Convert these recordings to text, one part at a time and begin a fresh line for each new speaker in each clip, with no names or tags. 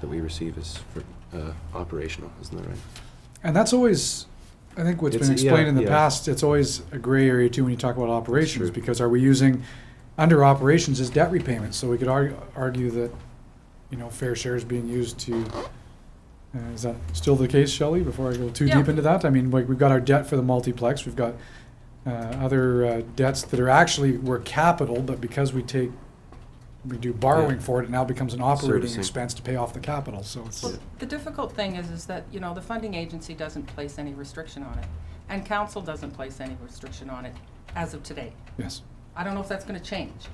that we receive is for, uh, operational, isn't that right?
And that's always, I think what's been
It's- yeah,
explained in the
yeah.
past, it's always a gray area too when you talk about operations,
True.
because are we using, under operations is debt repayment, so we could argue, argue that, you know, fair share is being used to, uh, is that still the case, Shelley, before I go too deep
Yeah.
into that? I mean, like, we've got our debt for the multiplex, we've got, uh, other uh, debts that are actually, were capital, but because we take, we do borrowing
Yeah.
for it, it now becomes an operating
Servicing.
expense to pay off the capital, so it's.
Well, the difficult thing is, is that, you know, the funding agency doesn't place any restriction on it, and council doesn't place any restriction on it as of today.
Yes.
I don't know if that's gonna change.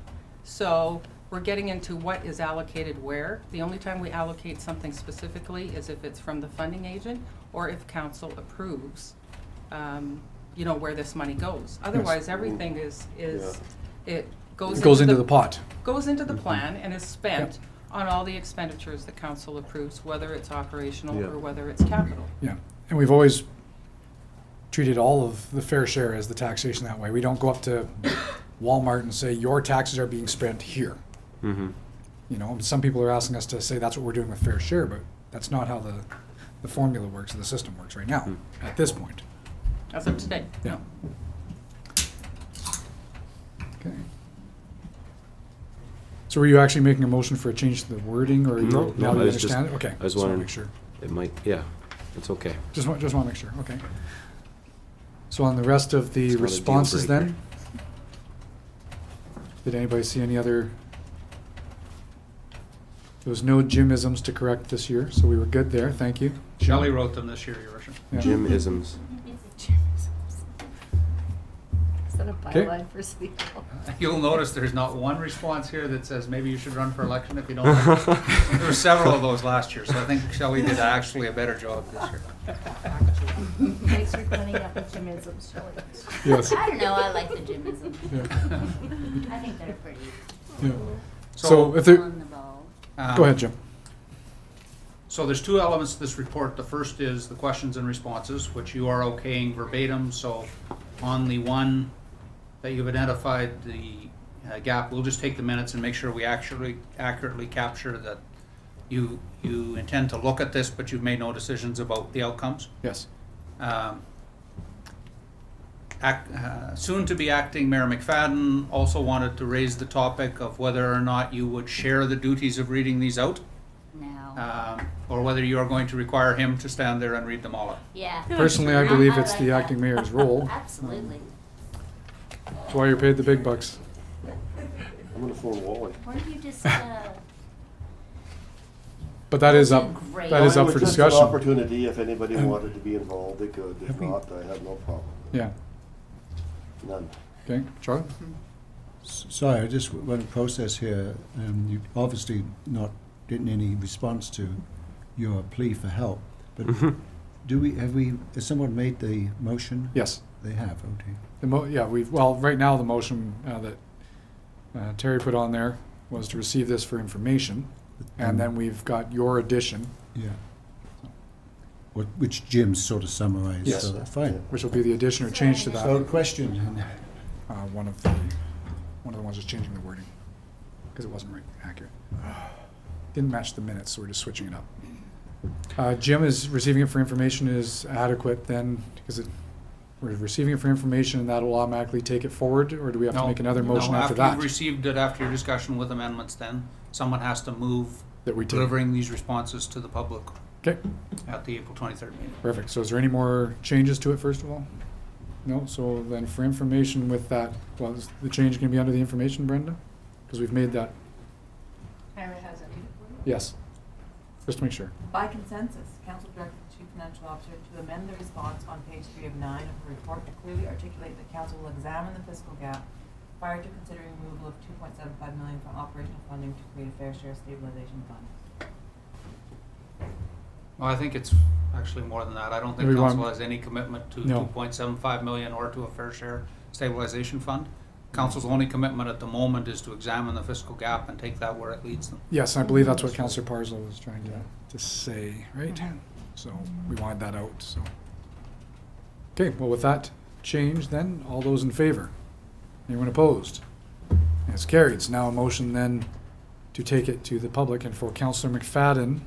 So, we're getting into what is allocated where. The only time we allocate something specifically is if it's from the funding agent, or if council approves, um, you know, where this money goes. Otherwise, everything is, is, it goes
It
into
goes into the pot.
goes into the plan and is spent on all the expenditures the council approves, whether it's operational
Yeah.
or whether it's capital.
Yeah, and we've always treated all of the fair share as the taxation that way. We don't go up to Walmart and say, your taxes are being spent here.
Mm-hmm.
You know, some people are asking us to say that's what we're doing with fair share, but that's not how the, the formula works, or the system works right now,
Mm-hmm.
at this point.
As of today.
Yeah. Okay. So were you actually making a motion for a change to the wording, or you,
No, no, I
now you
was just-
understand it? Okay.
I was
just wanna
wondering-
Make sure.
It might, yeah, it's okay.
Just want, just want to make sure, okay. So on the rest of the
It's not a deal
responses
breaker.
then? Did anybody see any other? There was no Jimisms to correct this year, so we were good there, thank you.
Shelley wrote them this year, Your Worship.
Yeah.
Jim isms.
Is that a
Okay.
byline for city hall?
You'll notice there's not one response here that says maybe you should run for election if you don't. like it." There were several of those last year, so I think Shelley did actually a better job this year.
Thanks for cleaning up the Jimisms, Shelley.
Yes.
I don't know, I like the Jimisms.
Yeah,
I think they're pretty
yeah. So
So-
if there,
on the ball.
Um,
go ahead, Jim.
So there's two elements to this report. The first is the questions and responses, which you are okaying verbatim, so on the one that you've identified, the uh, gap, we'll just take the minutes and make sure we actually accurately capture that you, you intend to look at this, but you've made no decisions about the outcomes.
Yes.
Um, act- uh, Soon-to-be acting Mayor McFadden also wanted to raise the topic of whether or not you would share the duties of reading these out,
No.
um, or whether you are going to require him to stand there and read them all out.
Yeah,
Personally, I
I-
believe
I
it's
like
the
that.
acting mayor's role,
absolutely.
that's why you're paid the big bucks.
I'm gonna phone Wally.
Weren't you just, uh,
But that is up,
Great.
that is up for
It was just an
discussion,
opportunity, if anybody wanted to be involved, they could, if not, I have no problem,
yeah,
none.
okay, Charlie?
S- Sorry, I just went a process here, and you obviously not getting any response to your plea for help. But
Mm-hmm.
do we, have we, has someone made the motion?
Yes.
They have, okay.
The mo, yeah, we've, well, right now, the motion uh, that uh, Terry put on there was to receive this for information, and then we've got your addition,
Um, Yeah. What, which Jim sort of summarized,
Yes.
so that's fine.
which will be the addition or change to
So
that.
question, then.
Uh, One of the, one of the ones is changing the wording, because it wasn't right, accurate. Didn't match the minutes, so we're just switching it up. Uh, Jim is receiving it for information is adequate then, because it, we're receiving it for information, and that'll automatically take it forward, or do we have to
No,
make another
no,
motion after
After
that?
you've received it, after your discussion with amendments, then someone has to move
That we take,
delivering these responses to the public
okay.
at the April 23rd meeting.
Perfect. So is there any more changes to it, first of all? No? So then for information with that, well, is the change going to be under the information, Brenda? Because we've made that,
Ira has it.
yes. Just to make sure.
By consensus, council directed the chief financial officer to amend the response on page three of nine of her report to clearly articulate that council will examine the fiscal gap prior to considering removal of two point seven five million from operational funding to create a fair share stabilization fund.
Well, I think it's actually more than that. I don't think
Everyone-
council has any commitment to
No.
two point seven five million or to a fair share stabilization fund. Council's only commitment at the moment is to examine the fiscal gap and take that where it leads them.
Yes, I believe that's what Counselor Parslow was trying to, to say, right? So we wanted that out, so. Okay, well, with that change then, all those in favor? Anyone opposed? It's carried. It's now a motion then to take it to the public and for Counselor McFadden